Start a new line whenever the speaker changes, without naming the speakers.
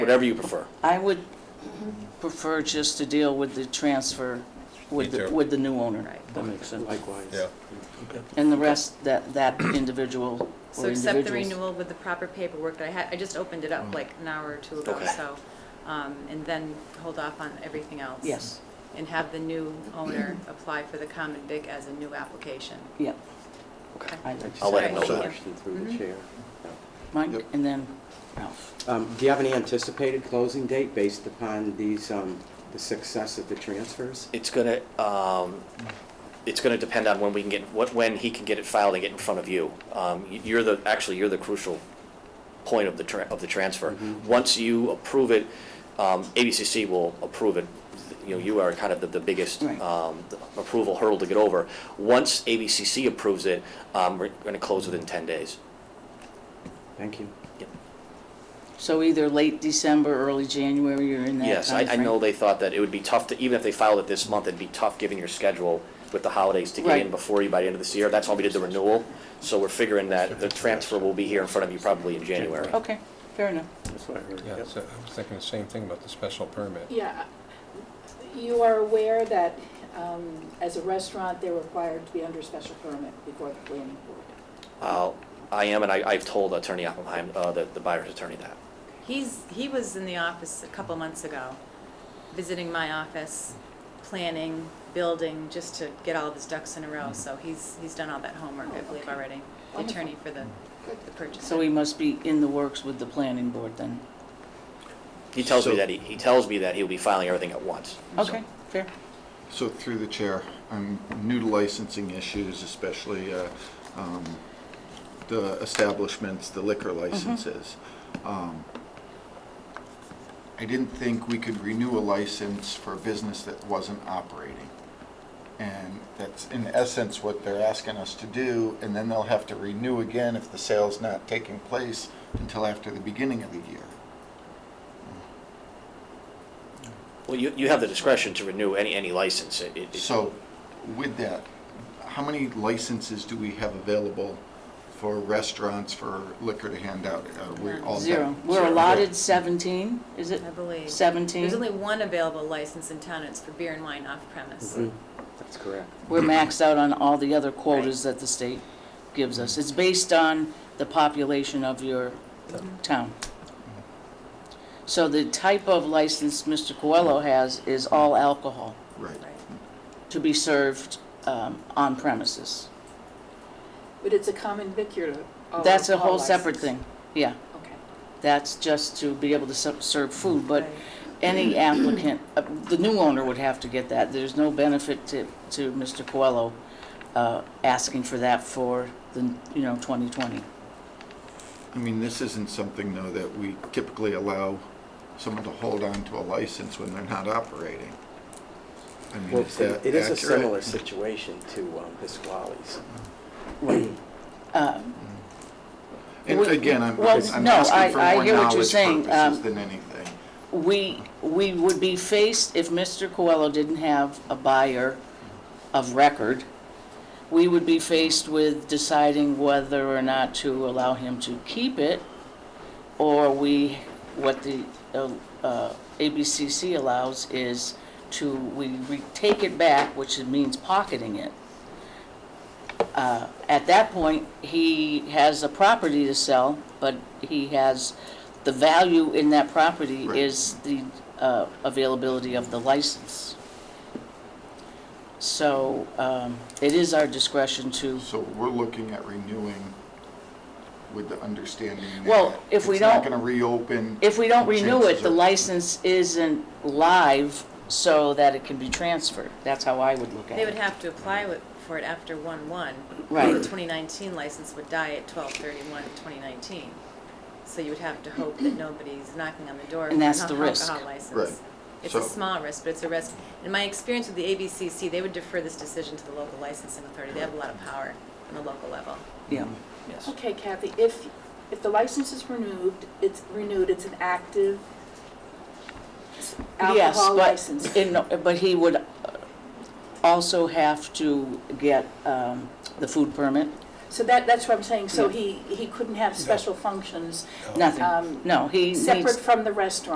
whatever you prefer.
I would prefer just to deal with the transfer with,
Me
the-
too.
with the new owner.
Right.
That makes sense.
Likewise.
Yeah,
And the rest, that, that individual
So
or
accept the
individuals. Mm.
renewal with the proper paperwork that I had, I just opened it up like an hour or two ago,
Okay.
so, um, and then hold off on everything else.
Yes,
And have the new owner apply for the common vic as a new application.
yeah.
Okay.
I like
I'll let him
Sorry.
know
Another
that.
Question through the
Mhm.
chair.
Mike,
Yep.
and then Ralph.
Um, Do you have any anticipated closing date based upon these, um, the success of the transfers?
It's gonna, um, it's gonna depend on when we can get, what, when he can get it filed and get in front of you. Um, y- you're the, actually, you're the crucial point of the tra- of the transfer. Once you approve it, um, ABCC will approve it. You know, you are kind of the, the biggest,
Right.
um, approval hurdle to get over. Once ABCC approves it, um, we're gonna close within ten days.
Thank you.
So either late December, early January, you're in that timeframe?
Yes, I, I know they thought that it would be tough to, even if they filed it this month, it'd be tough given your schedule with the holidays to get in
Right.
before you by the end of this year. That's why we did the renewal. So we're figuring that the transfer will be here in front of you probably in January.
Okay, fair enough.
That's what I heard.
yeah,
Yep.
so I was thinking the same thing about the special permit.
Yeah, you are aware that um, as a restaurant, they're required to be under special permit before the planning board.
Uh, I am, and I, I've told Attorney Oppenheim, uh, the, the buyer's attorney that.
He's, he was in the office a couple months ago, visiting my office, planning, building, just to get all of his ducks in a
Mm-hmm.
row, so he's, he's done all that homework, I believe, already. The
Wonderful.
attorney for the, the purchase.
So he must be in the works with the planning board then?
He tells me
So-
that, he, he tells me that he'll be filing everything at once.
Okay, fair.
So through the chair, I'm new to licensing issues, especially uh, um, the establishments, the liquor licenses. Um, I didn't think we could renew a license for a business that wasn't operating. And that's in essence what they're asking us to do, and then they'll have to renew again if the sale's not taking place until after the beginning of the year.
Well, you, you have the discretion to renew any, any license. It- it-
So with that, how many licenses do we have available for restaurants for liquor to hand out? Uh, we're all
Zero.
done.
We're
Zero.
allotted 17, is it?
I believe.
17?
There's only one available license in town, and it's for beer and wine off premise.
Mm-hmm.
Mhm. That's correct.
We're maxed out on all the other quotas that the state gives us. It's based on the population of your town. So the type of license Mr. Coelho has is all alcohol
Right.
Right.
to be served um, on premises.
But it's a common vic, you're. all-
That's a
Oh, all
whole separate
licensed.
thing, yeah.
Okay.
That's just to be able to ser- serve food, but
Right.
any applicant, uh, the new owner would have to get that. There's no benefit to, to Mr. Coelho uh, asking for that for the, you know, 2020.
I mean, this isn't something though that we typically allow someone to hold on to a license when they're not operating. I mean,
Well,
is that
it is a
Mm-hmm. accurate?
similar situation to um, Pasquale's.
Uh,
And
Well,
again, I'm,
well,
I'm
no, I-
asking for
I
more
hear what you're
knowledge
saying,
purposes
um,
than anything.
We, we would be faced, if Mr. Coelho didn't have a buyer of record, we would be faced with deciding whether or not to allow him to keep it, or we, what the uh, uh, ABCC allows is to, we re- take it back, which means pocketing it. Uh, At that point, he has a property to sell, but he has, the value in that property
Right.
is the uh, availability of the license. So um, it is our discretion to,
So we're looking at renewing with the understanding that.
Well, if we
It's not
don't-
going to reopen.
if we don't renew it,
chances
the
are-
license isn't live so that it can be transferred. That's how I would look at it.
They would have to apply wi- for it after one one.
Right.
The twenty nineteen license would die at twelve thirty-one, twenty nineteen. So you would have to hope that nobody's knocking on the door.
And
for
that's
an
the
alcohol
risk.
license.
Right.
It's a
So-
small risk, but it's a risk. In my experience with the ABCC, they would defer this decision to the local licensing authority. They have a lot of power on the local level.
Yeah,
Yes.
Okay, Kathy, if, if the license is renewed, it's renewed, it's an active
yes,
alcohol license.
but, in- but he would uh, also have to get um, the food permit.
So that, that's what I'm saying, so
Yeah.
he, he couldn't have special functions
Nothing,
Um,
no, he needs.
separate from the restaurant.